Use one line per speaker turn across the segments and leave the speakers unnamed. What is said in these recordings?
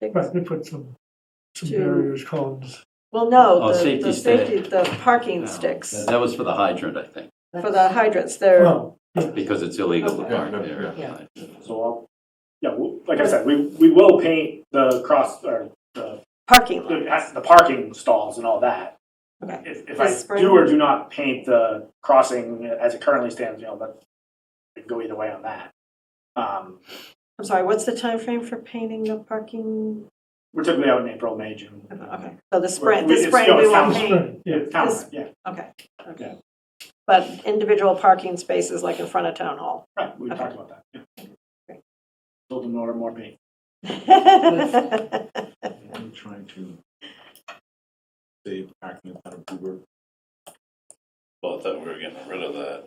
Right, they put some, some
To-
barriers, columns.
Well, no,
Oh,
the,
safety
the
stick. Oh,
safety, the parking
No,
sticks
That that was for the hydrant, I think,
for the hydrants, they're,
Well, yeah.
because it's illegal to
Okay.
park
Yeah, no,
there.
yeah.
So, I'll- yeah, we'll- like I said, we, we will paint the cross, or the,
parking
the
lots.
the parking stalls and all that.
Okay.
If, if
This
I
spring?
do or do not paint the crossing as it currently stands, you know, that, it could go either way on that. Um,
I'm sorry, what's the time frame for painting the parking?
We're typically out in April, May, June.
Okay, so the spring,
we-
this
it's
spring
still-
we
it's
will
not-
paint,
Right, yeah.
Yeah, town,
This-
yeah,
okay,
Yeah.
okay. But individual parking spaces like in front of town hall.
right, we
Okay.
talked about that, yeah.
Great.
Build them more, more paint.
I'm trying to save acne out of Uber.
Well, I thought we were getting rid of that.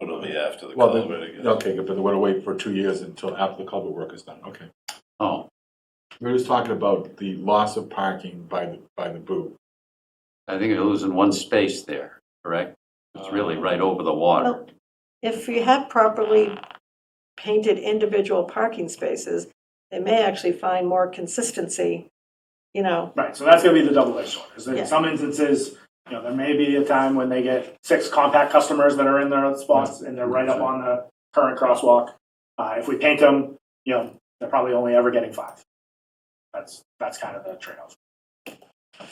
It'll be after the
Well, then-
culvert again.
Okay, good, but they want to wait for two years until after the culvert work is done, okay.
Oh,
We were just talking about the loss of parking by the, by the boo.
I think you're losing one space there, correct? It's really right over the water.
Uh, Well, If you have properly painted individual parking spaces, they may actually find more consistency, you know,
Right, so that's gonna be the double edged sword, is that
Yeah.
in some instances, you know, there may be a time when they get six compact customers that are in their spots and they're right up on the current crosswalk. Uh, if we paint them, you know, they're probably only ever getting five. That's, that's kind of the trade-off.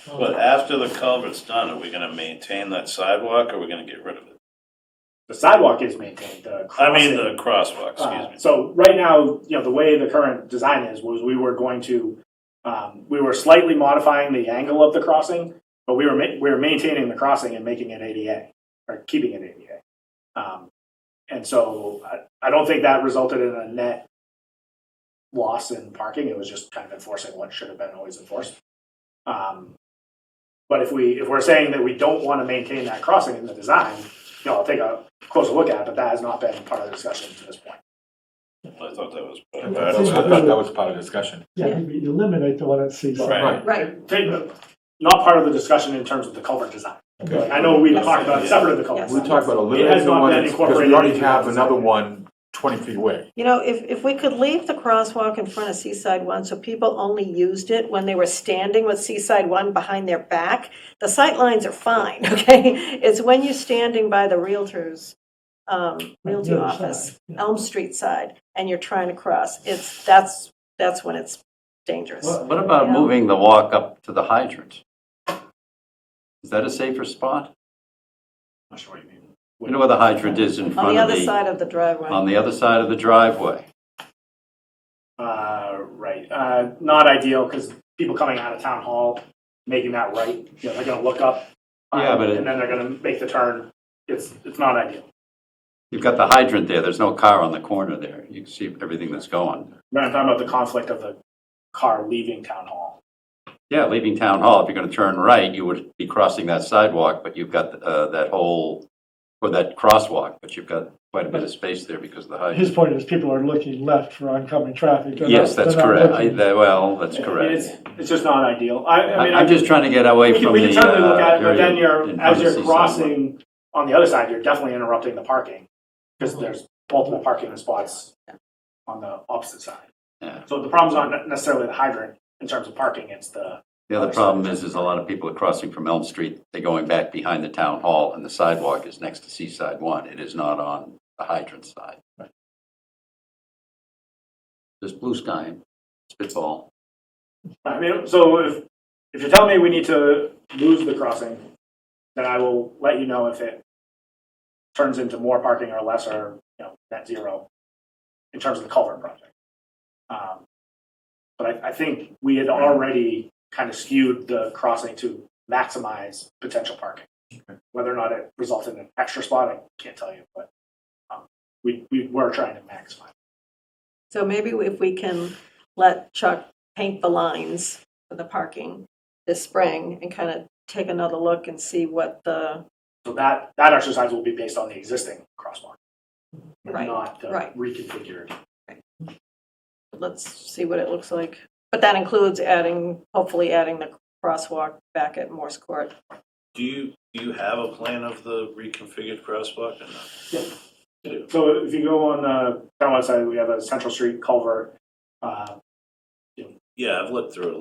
But after the culvert's done, are we gonna maintain that sidewalk or are we gonna get rid of it?
The sidewalk is maintained, the
I
crossing-
mean, the crosswalk,
Uh,
excuse me.
So right now, you know, the way the current design is, was we were going to, um, we were slightly modifying the angle of the crossing, but we were, ma- we were maintaining the crossing and making it ADA, or keeping it ADA. Um, And so I, I don't think that resulted in a net loss in parking, it was just kind of enforcing what should have been always enforced. Um, But if we, if we're saying that we don't want to maintain that crossing in the design, you know, I'll take a closer look at it, but that has not been part of the discussion to this point.
I thought that was.
I
Uh,
I thought that was part of the discussion.
Yeah, you eliminate the one at Seaside.
Right.
right,
Take- Not part of the discussion in terms of the culvert design.
Okay.
I know we talked about it separate of the culvert.
Yes.
We
design.
talked about
It has
eliminating the
not
one,
been
because we
incorporated
already
into
have
the-
another one 20 feet away.
You know, if, if we could leave the crosswalk in front of Seaside One, so people only used it when they were standing with Seaside One behind their back, the sight lines are fine, okay? It's when you're standing by the Realtors, um, Realty
other side,
office,
yeah.
Elm Street side, and you're trying to cross, it's, that's, that's when it's dangerous.
What what about
Yeah.
moving the walk up to the hydrant? Is that a safer spot?
Not sure what you mean.
You know where the hydrant is in
On
front
the
of
other
the, um,
side of the driveway,
on the other side of the driveway?
Uh, right, uh, not ideal, because people coming out of town hall, making that right, you know, they're gonna look up. um,
Yeah, but it-
And then they're gonna make the turn, it's, it's not ideal.
You've got the hydrant there, there's no car on the corner there. You can see everything that's going.
Then I'm talking about the conflict of the car leaving town hall.
Yeah, leaving Town Hall, if you're going to turn right, you would be crossing that sidewalk, but you've got uh, that whole, or that crosswalk, but you've got quite a bit of space there because of the hydrant.
His point is people are looking left for oncoming traffic. They're not-
Yes, that's
they're not
correct. I-
looking-
that- Well, that's
I mean,
correct.
It's, it's just not ideal. I, I mean,
I-
I
I'm just trying to get away
We can,
from
we
the.
can certainly look
uh,
at it, but
area
then you're,
in front
as
of
you're
Seaside.
crossing on the other side, you're definitely interrupting the parking because there's multiple parking spots on the opposite side.
Yeah.
So the problem's not necessarily the hydrant in terms of parking, it's the,
The other problem is, is a lot of people are crossing from Elm Street, they're going back behind the town hall, and the sidewalk is next to Seaside One. It is not on the hydrant side. There's blue sky, spitball.
I mean, so if, if you're telling me we need to lose the crossing, then I will let you know if it turns into more parking or less or, you know, net zero in terms of the culvert project. Um, But I, I think we had already kind of skewed the crossing to maximize potential parking. Whether or not it resulted in an extra spot, I can't tell you, but um, we, we were trying to maximize.
so maybe if we can let Chuck paint the lines for the parking this spring and kind of take another look and see what the,
So that, that exercise will be based on the existing crosswalk,
right.
not the
right.
reconfigured
let's see what it looks like. But that includes adding, hopefully adding the crosswalk back at Morse Court.
Do you, do you have a plan of the reconfigured crosswalk or not?
uh, So if you go on the town website, we have a Central Street culvert. uh, you know,
Yeah, I've looked through it a